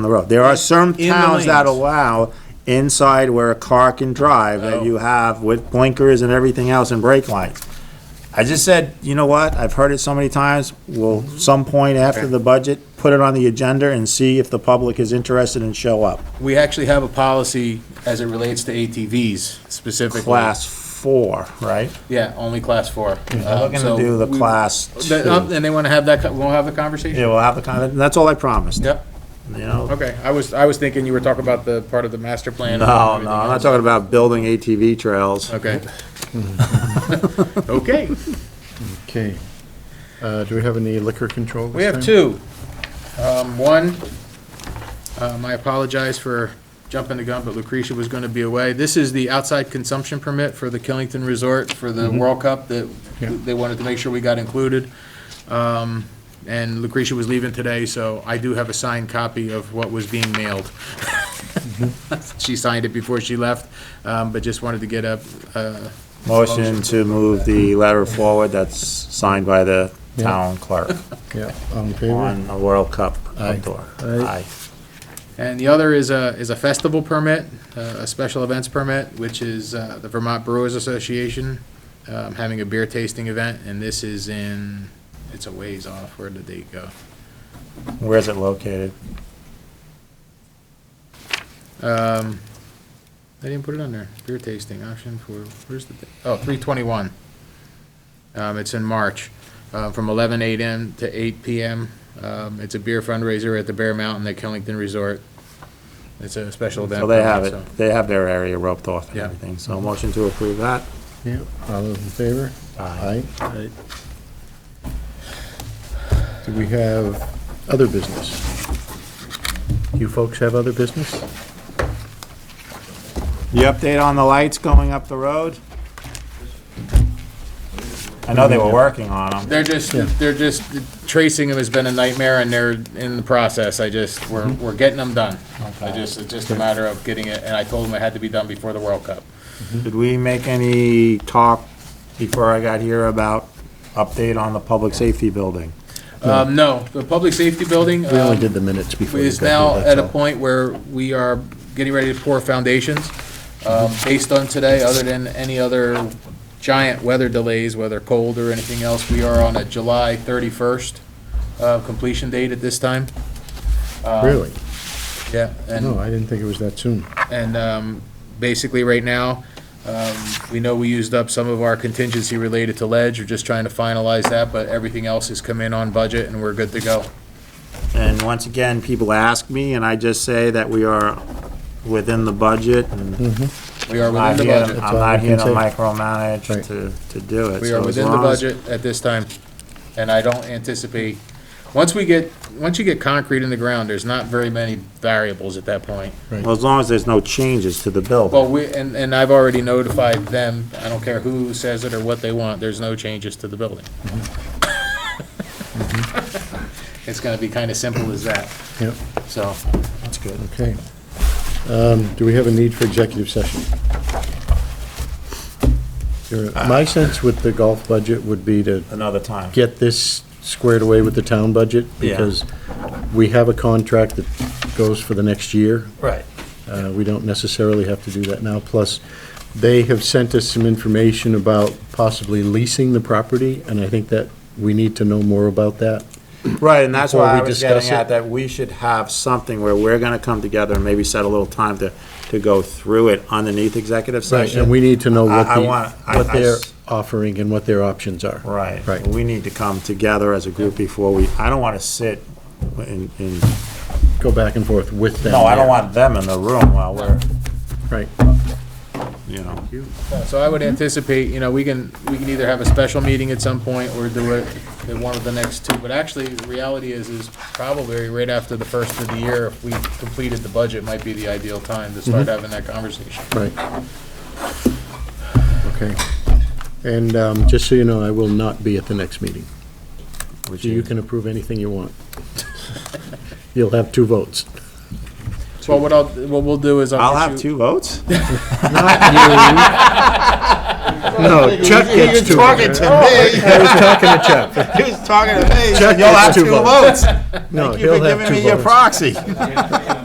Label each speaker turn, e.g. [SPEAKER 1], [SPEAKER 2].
[SPEAKER 1] the road. There are some
[SPEAKER 2] In the
[SPEAKER 1] towns that
[SPEAKER 2] lanes.
[SPEAKER 1] allow inside where a car can drive
[SPEAKER 2] Oh.
[SPEAKER 1] that you have with blinkers and everything else and brake lights. I just said, you know what, I've heard it so many times, we'll, some point after the budget, put it on the agenda and see if the public is interested and show up.
[SPEAKER 2] We actually have a policy as it relates to ATVs specifically.
[SPEAKER 1] Class four, right?
[SPEAKER 2] Yeah, only class four. Um,
[SPEAKER 1] We're gonna do the class two. Yeah,
[SPEAKER 2] uh, And they want to have that, co- we'll have the conversation?
[SPEAKER 1] we'll have the kind of, that's all I promised,
[SPEAKER 2] Yep,
[SPEAKER 1] you know?
[SPEAKER 2] okay. I was, I was thinking you were talking about the part of the master plan. and
[SPEAKER 1] No,
[SPEAKER 2] everything
[SPEAKER 1] no, I'm not
[SPEAKER 2] else.
[SPEAKER 1] talking about building ATV trails.
[SPEAKER 2] Okay. Okay,
[SPEAKER 3] Okay. Uh, Do we have any liquor control?
[SPEAKER 2] we have two. Um, One, um, I apologize for jumping the gun, but Lucretia was going to be away. This is the outside consumption permit for the Killington Resort for the World Cup that
[SPEAKER 3] Yeah.
[SPEAKER 2] they wanted to make sure we got included. Um, And Lucretia was leaving today, so I do have a signed copy of what was being mailed. She signed it before she left, um, but just wanted to get a, uh,
[SPEAKER 1] Motion to move the letter forward that's signed by the
[SPEAKER 3] Yeah.
[SPEAKER 1] town clerk
[SPEAKER 3] Yeah, all in favor?
[SPEAKER 1] on the World Cup
[SPEAKER 3] Aye.
[SPEAKER 1] outdoor.
[SPEAKER 3] Aye.
[SPEAKER 2] And the other is a, is a festival permit, uh, a special events permit, which is uh, the Vermont Brewers Association um, having a beer tasting event, and this is in, it's a ways off, where did they go?
[SPEAKER 1] Aye. Where is it located?
[SPEAKER 2] Um, I didn't put it on there, beer tasting option for, where's the, oh, 321. Um, It's in March, uh, from 11 a.m. to 8 p.m. Um, It's a beer fundraiser at the Bear Mountain at Killington Resort. It's a special event.
[SPEAKER 1] So they have
[SPEAKER 2] permit, so-
[SPEAKER 1] it, they have their area roped off and
[SPEAKER 2] Yeah.
[SPEAKER 1] everything, so motion to approve that.
[SPEAKER 3] Yeah, all those in favor? Aye. Aye. Do we have other business? You folks have other business?
[SPEAKER 1] The update on the lights going up the road? I know they were working on them.
[SPEAKER 2] They're just,
[SPEAKER 3] Yeah.
[SPEAKER 2] they're just, tracing them has been a nightmare and they're in the process. I just, we're,
[SPEAKER 3] Mm-hmm.
[SPEAKER 2] we're getting them done. I just, it's just a matter of getting it, and I told them it had to be done before the World Cup.
[SPEAKER 1] Did we make any talk before I got here about update on the public safety building?
[SPEAKER 2] Um, no, the public safety building,
[SPEAKER 3] We only
[SPEAKER 2] um,
[SPEAKER 3] did the minutes before. we
[SPEAKER 2] is
[SPEAKER 3] got here,
[SPEAKER 2] now
[SPEAKER 3] that's
[SPEAKER 2] at a
[SPEAKER 3] all.
[SPEAKER 2] point where we are getting ready to pour foundations. Um,
[SPEAKER 3] Mm-hmm.
[SPEAKER 2] Based on today, other than any other giant weather delays, whether cold or anything else, we are on a July 31st uh, completion date at this time. Um,
[SPEAKER 3] Really?
[SPEAKER 2] Yeah, and
[SPEAKER 3] No, I didn't think it was that soon.
[SPEAKER 2] And um, basically, right now, um, we know we used up some of our contingency related to ledge, we're just trying to finalize that, but everything else has come in on budget and we're good to go.
[SPEAKER 1] And once again, people ask me, and I just say that we are within the budget, and
[SPEAKER 3] Mm-hmm.
[SPEAKER 2] We are
[SPEAKER 1] I'm not
[SPEAKER 2] within the
[SPEAKER 1] here to-
[SPEAKER 2] budget.
[SPEAKER 1] I'm
[SPEAKER 3] all
[SPEAKER 1] not
[SPEAKER 3] we
[SPEAKER 1] here to
[SPEAKER 3] can
[SPEAKER 1] micromanage
[SPEAKER 3] Right.
[SPEAKER 1] to, to do it.
[SPEAKER 2] We
[SPEAKER 1] So
[SPEAKER 2] are
[SPEAKER 1] as
[SPEAKER 2] within the
[SPEAKER 1] long as-
[SPEAKER 2] budget at this time, and I don't anticipate, once we get, once you get concrete in the ground, there's not very many variables at that point.
[SPEAKER 1] Well, as long as there's no changes to the building.
[SPEAKER 2] Well, we, and, and I've already notified them, I don't care who says it or what they want, there's no changes to the building.
[SPEAKER 1] Mm-hmm.
[SPEAKER 2] It's gonna be kinda simple as that,
[SPEAKER 3] Yep,
[SPEAKER 2] so.
[SPEAKER 1] That's good.
[SPEAKER 3] okay. Um, Do we have a need for executive session? Your- My sense with the golf budget would be to
[SPEAKER 1] Another time.
[SPEAKER 3] get this squared away with the town budget,
[SPEAKER 1] Yeah.
[SPEAKER 3] because we have a contract that goes for the next year.
[SPEAKER 1] Right.
[SPEAKER 3] Uh, We don't necessarily have to do that now. Plus, they have sent us some information about possibly leasing the property, and I think that we need to know more about that.
[SPEAKER 1] Right, and that's
[SPEAKER 3] Before
[SPEAKER 1] why I
[SPEAKER 3] we
[SPEAKER 1] was getting
[SPEAKER 3] discuss
[SPEAKER 1] at,
[SPEAKER 3] it.
[SPEAKER 1] that we should have something where we're gonna come together and maybe set a little time to, to go through it underneath executive session.
[SPEAKER 3] And we need to know what
[SPEAKER 1] I- I want-
[SPEAKER 3] the,
[SPEAKER 1] I-
[SPEAKER 3] what
[SPEAKER 1] I
[SPEAKER 3] they're
[SPEAKER 1] s-
[SPEAKER 3] offering and what their options are.
[SPEAKER 1] Right.
[SPEAKER 3] Right.
[SPEAKER 1] We need to come together as a group before we, I don't wanna sit in, in,
[SPEAKER 3] Go back and forth with them.
[SPEAKER 1] no, I don't
[SPEAKER 3] there.
[SPEAKER 1] want them in the room while we're,
[SPEAKER 3] Right,
[SPEAKER 1] you know.
[SPEAKER 2] So I would anticipate, you know, we can, we can either have a special meeting at some point or do it at one of the next two. But actually, the reality is, is probably right after the first of the year, if we completed the budget, might be the ideal time to start
[SPEAKER 1] Mm-hmm.
[SPEAKER 2] having that conversation.
[SPEAKER 3] right. Okay. And um, just so you know, I will not be at the next meeting.
[SPEAKER 1] which
[SPEAKER 3] You
[SPEAKER 1] is-
[SPEAKER 3] can approve anything you want. You'll have two votes.
[SPEAKER 2] Well, what I'll, what we'll do is.
[SPEAKER 1] I'll have
[SPEAKER 2] issue-
[SPEAKER 1] two votes?
[SPEAKER 3] No, Chuck gets two.
[SPEAKER 1] talking to me.
[SPEAKER 3] I was talking to Chuck.
[SPEAKER 1] He was talking to me.
[SPEAKER 3] Chuck
[SPEAKER 1] You'll
[SPEAKER 3] gets
[SPEAKER 1] have
[SPEAKER 3] two
[SPEAKER 1] two
[SPEAKER 3] votes.
[SPEAKER 1] votes.
[SPEAKER 3] No,
[SPEAKER 1] You've
[SPEAKER 3] he'll
[SPEAKER 1] been
[SPEAKER 3] have
[SPEAKER 1] giving
[SPEAKER 3] two
[SPEAKER 1] me your
[SPEAKER 3] votes.
[SPEAKER 1] proxy.